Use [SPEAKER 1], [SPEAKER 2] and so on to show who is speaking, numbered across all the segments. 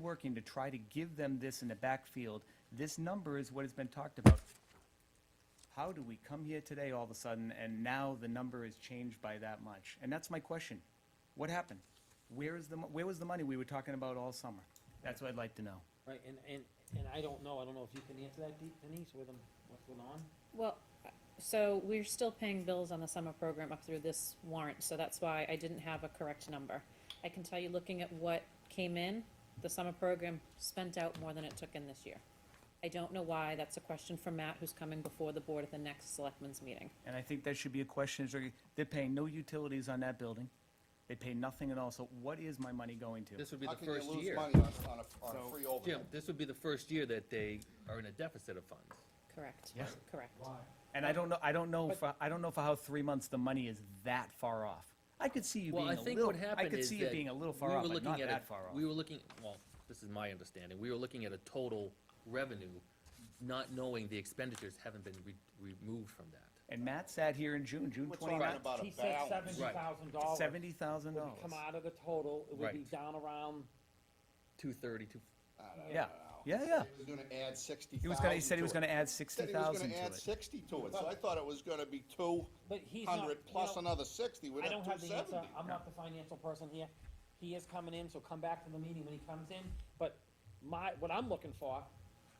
[SPEAKER 1] working to try to give them this in the backfield. This number is what has been talked about. How do we come here today all of a sudden, and now the number is changed by that much? And that's my question. What happened? Where is the, mo- where was the money we were talking about all summer? That's what I'd like to know.
[SPEAKER 2] Right, and, and, and I don't know, I don't know if you can answer that, De- Denise, with them, what's going on?
[SPEAKER 3] Well, so we're still paying bills on the summer program up through this warrant, so that's why I didn't have a correct number. I can tell you, looking at what came in, the summer program spent out more than it took in this year. I don't know why, that's a question for Matt, who's coming before the board at the next selectmen's meeting.
[SPEAKER 1] And I think that should be a question, is they're paying no utilities on that building. They pay nothing at all, so what is my money going to?
[SPEAKER 4] This would be
[SPEAKER 5] How
[SPEAKER 4] the
[SPEAKER 5] can you
[SPEAKER 4] first
[SPEAKER 5] lose
[SPEAKER 4] year.
[SPEAKER 5] money on, on a, on
[SPEAKER 1] So-
[SPEAKER 5] a free
[SPEAKER 4] Jim,
[SPEAKER 5] overhead?
[SPEAKER 4] this would be the first year that they are in a deficit of funds.
[SPEAKER 3] Correct,
[SPEAKER 1] Yeah.
[SPEAKER 3] correct.
[SPEAKER 1] And I don't know, I don't know, for- I don't know for how three months the money is that far off. I could see you
[SPEAKER 4] Well,
[SPEAKER 1] being
[SPEAKER 4] I
[SPEAKER 1] a
[SPEAKER 4] think
[SPEAKER 1] little,
[SPEAKER 4] what
[SPEAKER 1] I
[SPEAKER 4] happened
[SPEAKER 1] could
[SPEAKER 4] is
[SPEAKER 1] see it
[SPEAKER 4] that
[SPEAKER 1] being a little
[SPEAKER 4] we
[SPEAKER 1] far
[SPEAKER 4] were
[SPEAKER 1] off, but
[SPEAKER 4] looking
[SPEAKER 1] not
[SPEAKER 4] at
[SPEAKER 1] that
[SPEAKER 4] a-
[SPEAKER 1] far off.
[SPEAKER 4] We were looking, well, this is my understanding, we were looking at a total revenue, not knowing the expenditures haven't been re- removed from that.
[SPEAKER 1] And Matt sat here in June, June
[SPEAKER 5] We're talking
[SPEAKER 1] twenty-ninth,
[SPEAKER 5] about
[SPEAKER 2] He
[SPEAKER 5] a
[SPEAKER 2] said
[SPEAKER 5] balance.
[SPEAKER 2] seventy thousand dollars.
[SPEAKER 1] seventy thousand
[SPEAKER 2] Would
[SPEAKER 1] dollars.
[SPEAKER 2] come out of the total, it would be
[SPEAKER 4] Right.
[SPEAKER 2] down around,
[SPEAKER 4] Two thirty, two,
[SPEAKER 5] I don't
[SPEAKER 1] Yeah,
[SPEAKER 5] know.
[SPEAKER 1] yeah, yeah.
[SPEAKER 5] He was gonna add sixty thousand.
[SPEAKER 1] He was gonna, he said he was gonna add
[SPEAKER 5] Said
[SPEAKER 1] sixty
[SPEAKER 5] he was
[SPEAKER 1] thousand
[SPEAKER 5] gonna
[SPEAKER 1] to
[SPEAKER 5] add
[SPEAKER 1] it.
[SPEAKER 5] sixty to it, so I thought it was gonna be two
[SPEAKER 2] but he's not.
[SPEAKER 5] hundred
[SPEAKER 2] you
[SPEAKER 5] plus
[SPEAKER 2] know,
[SPEAKER 5] another sixty, we'd
[SPEAKER 2] I
[SPEAKER 5] have
[SPEAKER 2] don't
[SPEAKER 5] two
[SPEAKER 2] have the answer,
[SPEAKER 5] seventy.
[SPEAKER 2] I'm not the financial person here, he is coming in, so come back to the meeting when he comes in, but my, what I'm looking for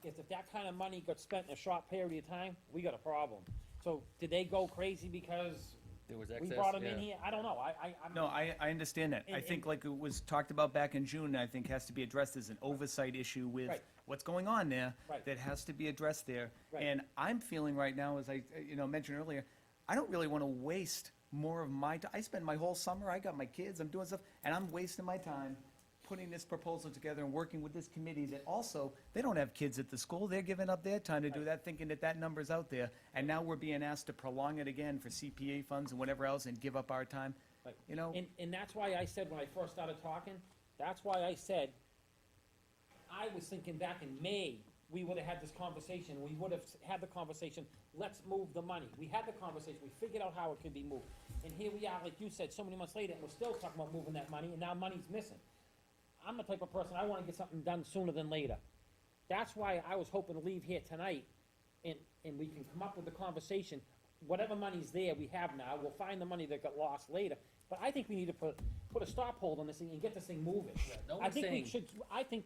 [SPEAKER 2] is if that kind of money got spent in a short period of time, we got a problem. So, did they go crazy because
[SPEAKER 4] there was
[SPEAKER 2] we
[SPEAKER 4] excess,
[SPEAKER 2] brought them
[SPEAKER 4] yeah.
[SPEAKER 2] in here? I don't know, I, I, I'm.
[SPEAKER 1] No, I, I understand that. I
[SPEAKER 2] And-
[SPEAKER 1] think
[SPEAKER 2] and-
[SPEAKER 1] like it was talked about back in June, and I think has to be addressed as an oversight issue with
[SPEAKER 2] Right.
[SPEAKER 1] what's going on there.
[SPEAKER 2] Right.
[SPEAKER 1] That has to be addressed there.
[SPEAKER 2] Right.
[SPEAKER 1] And I'm feeling right now, as I, uh, you know, mentioned earlier, I don't really wanna waste more of my, ti- I spend my whole summer, I got my kids, I'm doing stuff, and I'm wasting my time putting this proposal together and working with this committee that also, they don't have kids at the school, they're giving up their time to do that, thinking that that number's out there. And now we're being asked to prolong it again for CPA funds and whatever else and give up our time.
[SPEAKER 2] Right.
[SPEAKER 1] You know?
[SPEAKER 2] And, and that's why I said when I first started talking, that's why I said, I was thinking back in May, we would have had this conversation, we would have had the conversation, let's move the money. We had the conversation, we figured out how it could be moved. And here we are, like you said, so many months later, and we're still talking about moving that money, and now money's missing. I'm the type of person, I wanna get something done sooner than later. That's why I was hoping to leave here tonight, and, and we can come up with the conversation. Whatever money's there, we have now, we'll find the money that got lost later, but I think we need to put, put a stop hold on this thing and get this thing moving.
[SPEAKER 4] no
[SPEAKER 2] I
[SPEAKER 4] one's
[SPEAKER 2] think we
[SPEAKER 4] saying-
[SPEAKER 2] should, I think,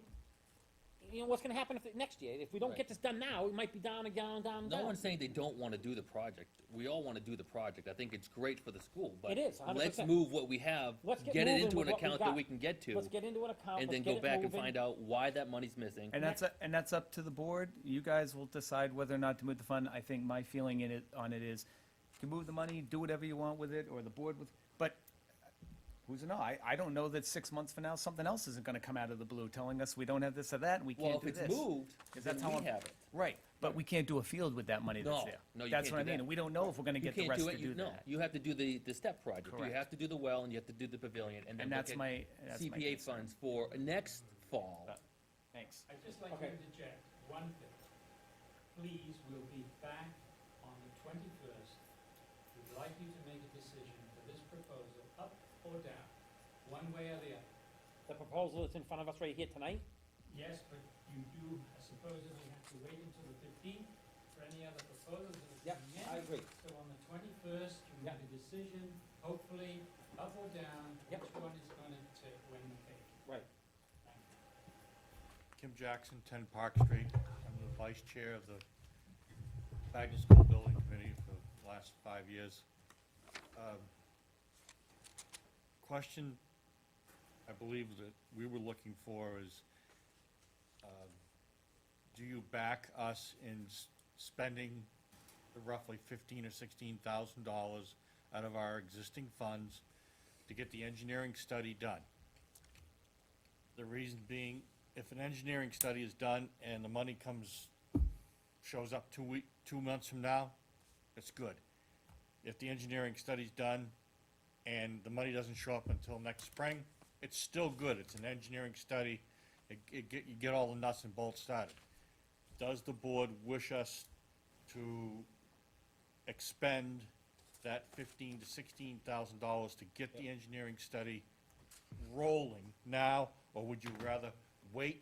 [SPEAKER 2] you know, what's gonna happen if, it- next year, if we don't
[SPEAKER 4] Right.
[SPEAKER 2] get this done now, it might be down and down, down, and
[SPEAKER 4] No
[SPEAKER 2] down.
[SPEAKER 4] one's saying they don't wanna do the project, we all wanna do the project, I think it's great for the school, but.
[SPEAKER 2] It is, 100%.
[SPEAKER 4] Let's move what we have,
[SPEAKER 2] Let's get
[SPEAKER 4] get it
[SPEAKER 2] moving
[SPEAKER 4] into
[SPEAKER 2] with
[SPEAKER 4] an
[SPEAKER 2] what we
[SPEAKER 4] account that
[SPEAKER 2] got.
[SPEAKER 4] we can get to,
[SPEAKER 2] Let's get into an account,
[SPEAKER 4] and
[SPEAKER 2] let's
[SPEAKER 4] then
[SPEAKER 2] get
[SPEAKER 4] go
[SPEAKER 2] it
[SPEAKER 4] back and
[SPEAKER 2] moving.
[SPEAKER 4] find out why that money's missing.
[SPEAKER 1] And that's, and that's up to the board. You guys will decide whether or not to move the fund. I think my feeling in it, on it is, you can move the money, do whatever you want with it, or the board with, but uh, who's to know? I, I don't know that six months from now, something else isn't gonna come out of the blue telling us we don't have this or that, and we
[SPEAKER 4] Well,
[SPEAKER 1] can't
[SPEAKER 4] if
[SPEAKER 1] do
[SPEAKER 4] it's
[SPEAKER 1] this.
[SPEAKER 4] moved,
[SPEAKER 1] Because
[SPEAKER 4] then
[SPEAKER 1] that's how
[SPEAKER 4] we
[SPEAKER 1] I'm-
[SPEAKER 4] have it.
[SPEAKER 1] Right, but we can't do a field with that money that's
[SPEAKER 4] No,
[SPEAKER 1] there.
[SPEAKER 4] no, you
[SPEAKER 1] That's
[SPEAKER 4] can't
[SPEAKER 1] what I
[SPEAKER 4] do
[SPEAKER 1] mean, and
[SPEAKER 4] that.
[SPEAKER 1] we don't know if we're gonna
[SPEAKER 4] You
[SPEAKER 1] get the
[SPEAKER 4] can't
[SPEAKER 1] rest
[SPEAKER 4] do
[SPEAKER 1] to
[SPEAKER 4] it,
[SPEAKER 1] do
[SPEAKER 4] you, no,
[SPEAKER 1] that.
[SPEAKER 4] you have to do the, the step project, you
[SPEAKER 1] Correct.
[SPEAKER 4] have to do the well, and you have to do the pavilion, and then
[SPEAKER 1] And
[SPEAKER 4] look
[SPEAKER 1] that's
[SPEAKER 4] at
[SPEAKER 1] my- that's my
[SPEAKER 4] CPA
[SPEAKER 1] concern.
[SPEAKER 4] funds for next fall.
[SPEAKER 1] Uh, Thanks.
[SPEAKER 6] I'd just like to
[SPEAKER 2] Okay.
[SPEAKER 6] interject one thing. Please, we'll be back on the twenty-first. We'd like you to make a decision for this proposal, up or down, one way or the other.
[SPEAKER 2] The proposal that's in front of us right here tonight,
[SPEAKER 6] Yes, but you do supposedly have to wait until the fifteenth for any other proposals that are
[SPEAKER 2] Yep,
[SPEAKER 6] coming in.
[SPEAKER 2] I agree.
[SPEAKER 6] So on the twenty-first, you
[SPEAKER 2] Yep.
[SPEAKER 6] make a decision, hopefully, up or down,
[SPEAKER 2] Yep.
[SPEAKER 6] which one is gonna take when the cake.
[SPEAKER 2] Right.
[SPEAKER 6] Thank you.
[SPEAKER 7] Kim Jackson, 10 Park Street. I'm the vice chair of the Wagner School Building Committee for the last five years. Um, Question I believe that we were looking for is, um, do you back us in s- spending the roughly 15 or 16,000 dollars out of our existing funds to get the engineering study done? The reason being, if an engineering study is done and the money comes, shows up two week, two months from now, it's good. If the engineering study's done and the money doesn't show up until next spring, it's still good. It's an engineering study. It, it get, you get all the nuts and bolts started. Does the board wish us to expend that fifteen to sixteen thousand dollars to get the engineering study rolling now, or would you rather wait